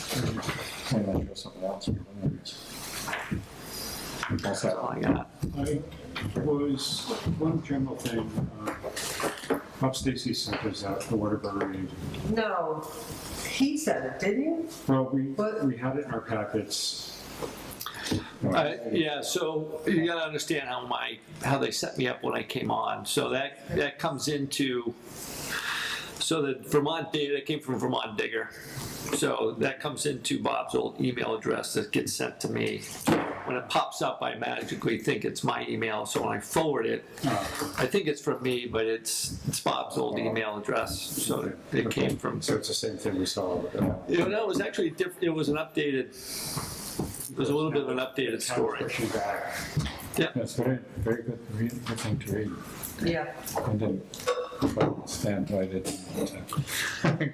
Might want to go something else. That's That's all I got. I was, one general thing, uh, Bob Stacy sent us out the Waterbury. No, he said it, didn't you? Well, we, What? we had it in our packets. Uh, Yeah, so you gotta understand how my, how they set me up when I came on. So that, that comes into, so the Vermont data that came from Vermont Digger. So that comes into Bob's old email address that gets sent to me. When it pops up, I magically think it's my email, so when I forward it, I think it's from me, but it's, it's Bob's old email address, so it came from. So it's the same thing we saw. uh, You know, it was actually diff, it was an updated, it was a little bit of an updated kind of story. pushing back. That's very, very good, read- good thing to read. Yeah. I didn't quite understand why they didn't.